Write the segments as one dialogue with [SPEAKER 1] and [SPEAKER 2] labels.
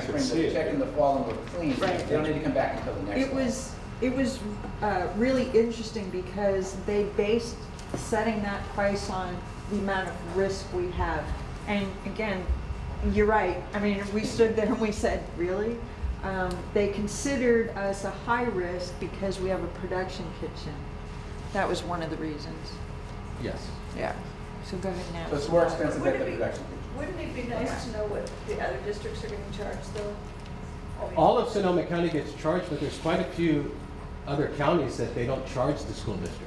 [SPEAKER 1] spring, but
[SPEAKER 2] see
[SPEAKER 1] the
[SPEAKER 2] it.
[SPEAKER 1] check in the fall and we're clean.
[SPEAKER 3] Right.
[SPEAKER 1] They don't need to come back until the next
[SPEAKER 3] It
[SPEAKER 1] one.
[SPEAKER 3] was, it was uh, really interesting because they based setting that price on the amount of risk we have. And again, you're right, I mean, we stood there and we said, really? Um, They considered us a high risk because we have a production kitchen. That was one of the reasons,
[SPEAKER 4] Yes.
[SPEAKER 3] yeah. So go ahead now.
[SPEAKER 1] So it's more expensive at
[SPEAKER 5] Wouldn't
[SPEAKER 1] the
[SPEAKER 5] it be,
[SPEAKER 1] production kitchen.
[SPEAKER 5] wouldn't it be nice to know what the other districts are gonna charge though? I mean,
[SPEAKER 4] All of Sonoma County gets charged, but there's quite a few other counties that they don't charge the school districts.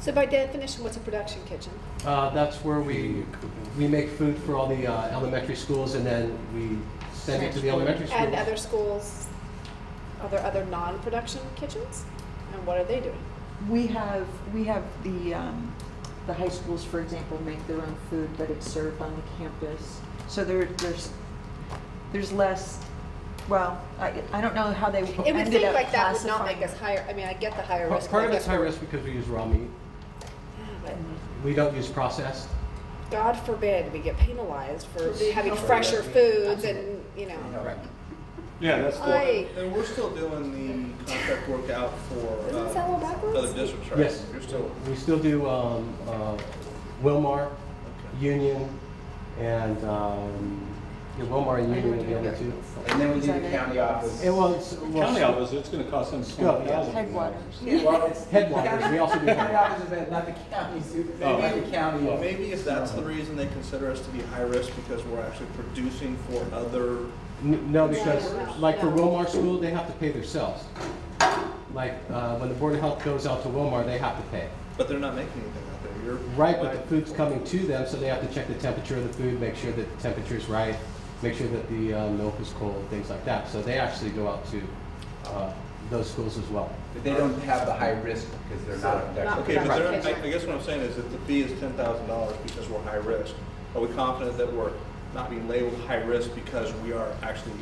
[SPEAKER 6] So by definition, what's a production kitchen?
[SPEAKER 4] Uh, that's where we, we make food for all the uh, elementary schools and then we send it to the elementary schools.
[SPEAKER 6] And other schools, are there other non-production kitchens? And what are they doing?
[SPEAKER 3] We have, we have the, um, the high schools, for example, make their own food, but it's served on the campus. So there, there's, there's less, well, I, I don't know how they ended up
[SPEAKER 6] It
[SPEAKER 3] classifying.
[SPEAKER 6] would think like that would not make us higher, I mean, I get the higher
[SPEAKER 4] Pa-
[SPEAKER 6] risk.
[SPEAKER 4] Part
[SPEAKER 6] but
[SPEAKER 4] of
[SPEAKER 6] I
[SPEAKER 4] it's
[SPEAKER 6] guess
[SPEAKER 4] high
[SPEAKER 6] we're-
[SPEAKER 4] risk because we use raw meat.
[SPEAKER 6] Yeah, but
[SPEAKER 4] We don't use processed.
[SPEAKER 6] God forbid we get penalized for
[SPEAKER 5] For being
[SPEAKER 6] having
[SPEAKER 5] healthy.
[SPEAKER 6] fresher foods and, you
[SPEAKER 1] You
[SPEAKER 6] know.
[SPEAKER 1] know,
[SPEAKER 4] Right.
[SPEAKER 2] Yeah, that's the,
[SPEAKER 6] I,
[SPEAKER 7] And we're still doing the contract work out for
[SPEAKER 6] Isn't
[SPEAKER 7] uh,
[SPEAKER 6] that all backwards?
[SPEAKER 7] other districts, right?
[SPEAKER 4] Yes.
[SPEAKER 7] You're still,
[SPEAKER 4] We still do um, uh, Wilmar, Union, and, um, yeah, Wilmar and Union are the other two.
[SPEAKER 1] And then we
[SPEAKER 3] Is
[SPEAKER 1] do the
[SPEAKER 3] that it?
[SPEAKER 1] county office.
[SPEAKER 4] It was,
[SPEAKER 2] county
[SPEAKER 4] well,
[SPEAKER 2] office, it's gonna cost them
[SPEAKER 4] Yeah.
[SPEAKER 2] twenty thousand.
[SPEAKER 3] Headwaters.
[SPEAKER 1] Well, it's-
[SPEAKER 4] Headwaters, we also do
[SPEAKER 1] The county
[SPEAKER 4] headwaters.
[SPEAKER 1] office is bad, not the county, Sue.
[SPEAKER 2] Oh.
[SPEAKER 1] Maybe the county.
[SPEAKER 7] well, maybe if that's the reason they consider us to be high risk because we're actually producing for other,
[SPEAKER 4] N- No, because,
[SPEAKER 6] No, no,
[SPEAKER 4] like for
[SPEAKER 6] no.
[SPEAKER 4] Wilmar School, they have to pay themselves. Like, uh, when the Board of Health goes out to Wilmar, they have to pay.
[SPEAKER 7] but they're not making anything out there. You're
[SPEAKER 4] Right, but the food's coming to them, so they have to check the temperature of the food, make sure that the temperature's right, make sure that the uh, milk is cold, things like that. So they actually go out to uh, those schools as well.
[SPEAKER 1] But they don't have the high risk because they're not a production.
[SPEAKER 6] Not
[SPEAKER 7] Okay, but
[SPEAKER 6] Right.
[SPEAKER 7] they're, I, I guess what I'm saying is if the fee is ten thousand dollars because we're high risk, are we confident that we're not being labeled high risk because we are actually,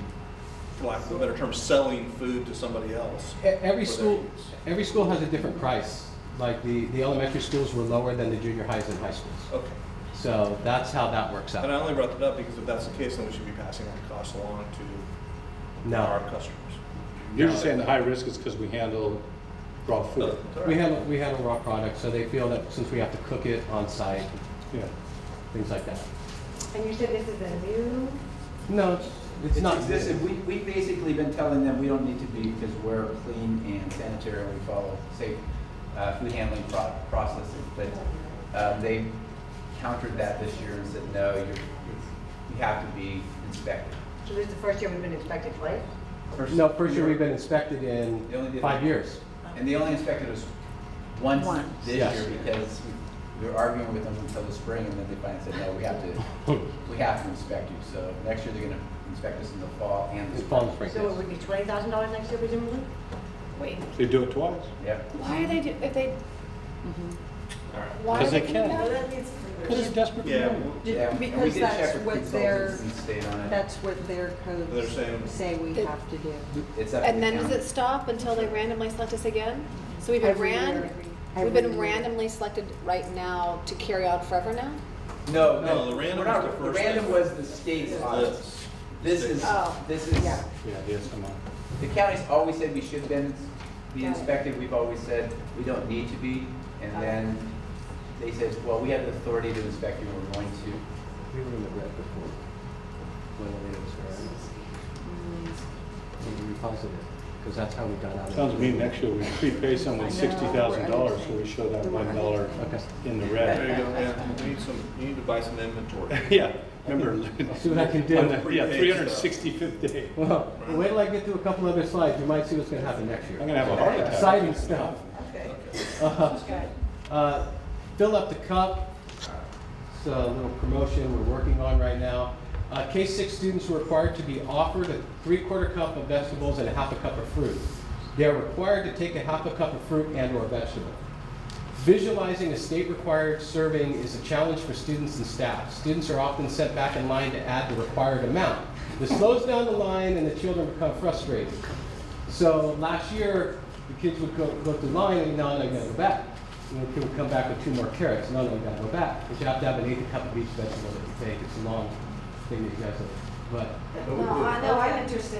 [SPEAKER 7] for lack of a better term, selling food to somebody else?
[SPEAKER 4] E- Every
[SPEAKER 7] for their
[SPEAKER 4] school,
[SPEAKER 7] use?
[SPEAKER 4] every school has a different price. Like the, the elementary schools were lower than the junior highs and high schools.
[SPEAKER 7] Okay,
[SPEAKER 4] So that's how that works
[SPEAKER 7] and I
[SPEAKER 4] out.
[SPEAKER 7] only brought that up because if that's the case, then we should be passing that cost along to our
[SPEAKER 4] No,
[SPEAKER 7] customers.
[SPEAKER 2] You're just saying the high risk is because we handle raw
[SPEAKER 7] Oh,
[SPEAKER 2] food.
[SPEAKER 4] we handle, we handle raw products, so they feel that since we have to cook it on site,
[SPEAKER 2] Yeah.
[SPEAKER 4] things like that.
[SPEAKER 5] And you said this is a new?
[SPEAKER 4] No, it's, it's
[SPEAKER 1] It's
[SPEAKER 4] not.
[SPEAKER 1] existed, we, we've basically been telling them we don't need to be because we're clean and sanitary and we follow safe uh, food handling pro- processes. But um, they countered that this year and said, no, you're, you have to be inspected.
[SPEAKER 5] So this is the first year we've been inspected, right?
[SPEAKER 1] First-
[SPEAKER 4] No, for sure, we've been inspected in
[SPEAKER 1] They only did-
[SPEAKER 4] five years.
[SPEAKER 1] And they only inspected us once
[SPEAKER 3] Once.
[SPEAKER 1] this
[SPEAKER 4] Yes.
[SPEAKER 1] year because we were arguing with them until the spring and then they finally said, no, we have
[SPEAKER 2] Hmm.
[SPEAKER 1] to, we have to inspect you. So next year they're gonna inspect us in the fall and the
[SPEAKER 4] It's
[SPEAKER 1] spring.
[SPEAKER 4] Palm Springs.
[SPEAKER 5] So it would be twenty thousand dollars next year presumably?
[SPEAKER 6] wait,
[SPEAKER 2] They do it twice.
[SPEAKER 1] Yep.
[SPEAKER 6] why are they, do- if they,
[SPEAKER 3] Mm-hmm.
[SPEAKER 6] why are
[SPEAKER 2] 'Cause
[SPEAKER 6] they
[SPEAKER 2] they
[SPEAKER 6] doing
[SPEAKER 2] can.
[SPEAKER 6] that?
[SPEAKER 5] means.
[SPEAKER 2] Because it's desperate.
[SPEAKER 7] Yeah,
[SPEAKER 2] demand.
[SPEAKER 7] w-
[SPEAKER 3] Ju-
[SPEAKER 1] Yeah, and we
[SPEAKER 3] Because
[SPEAKER 1] did check
[SPEAKER 3] that's
[SPEAKER 1] with
[SPEAKER 3] what their,
[SPEAKER 1] consultants and stayed on it.
[SPEAKER 3] that's what their
[SPEAKER 7] They're
[SPEAKER 3] codes
[SPEAKER 7] saying-
[SPEAKER 3] say we
[SPEAKER 6] It-
[SPEAKER 3] have to do.
[SPEAKER 1] It's up to
[SPEAKER 6] And
[SPEAKER 1] the
[SPEAKER 6] then does
[SPEAKER 1] county.
[SPEAKER 6] it stop until they randomly select us again? So we've been
[SPEAKER 3] Every
[SPEAKER 6] ran,
[SPEAKER 3] year.
[SPEAKER 6] we've
[SPEAKER 3] Every
[SPEAKER 6] been
[SPEAKER 3] year.
[SPEAKER 6] randomly selected right now to carry on forever now?
[SPEAKER 1] No,
[SPEAKER 7] No,
[SPEAKER 1] no,
[SPEAKER 7] the random
[SPEAKER 1] we're
[SPEAKER 7] was the
[SPEAKER 1] not, the
[SPEAKER 7] first
[SPEAKER 1] random
[SPEAKER 7] thing.
[SPEAKER 1] was the state's audit.
[SPEAKER 7] Yes.
[SPEAKER 1] This is,
[SPEAKER 6] Oh.
[SPEAKER 1] this is,
[SPEAKER 3] Yeah.
[SPEAKER 2] Yeah, the SMI.
[SPEAKER 1] the county's always said we should have been, be
[SPEAKER 6] Got it.
[SPEAKER 1] inspected, we've always said we don't need to be. And then they said, well, we have the authority to inspect you, we're going to.
[SPEAKER 4] We were in the red before. When it was, right? We were positive, because that's how we got out of it.
[SPEAKER 2] Sounds mean, next year we prepay someone sixty thousand dollars, so we show that one dollar
[SPEAKER 4] Okay.
[SPEAKER 2] in the
[SPEAKER 7] There you
[SPEAKER 2] red.
[SPEAKER 7] go, yeah, you need some, you need to buy some inventory.
[SPEAKER 2] Yeah, remember.
[SPEAKER 4] See what I can
[SPEAKER 2] on
[SPEAKER 4] do.
[SPEAKER 2] the- Yeah, three hundred and sixty-fifth day.
[SPEAKER 4] Well, wait till I get to a couple other slides, you might see what's gonna happen next
[SPEAKER 2] I'm
[SPEAKER 4] year.
[SPEAKER 2] gonna have a heart attack.
[SPEAKER 4] Exciting stuff. Uh, uh, Fill up the cup, it's a little promotion we're working on right now. Uh, K-6 students were required to be offered a three-quarter cup of vegetables and a half a cup of fruit. They are required to take a half a cup of fruit and/or vegetable. Visualizing a state-required serving is a challenge for students and staff. Students are often sent back in line to add the required amount. This slows down the line and the children become frustrated. So last year, the kids would go, go through line and now they gotta go back. And the kid would come back with two more carrots, now they gotta go back. But you have to have an eighth cup of each vegetable that you take, it's a long thing that you guys have. But
[SPEAKER 1] But we do.
[SPEAKER 6] 啊 I know, I'm interested.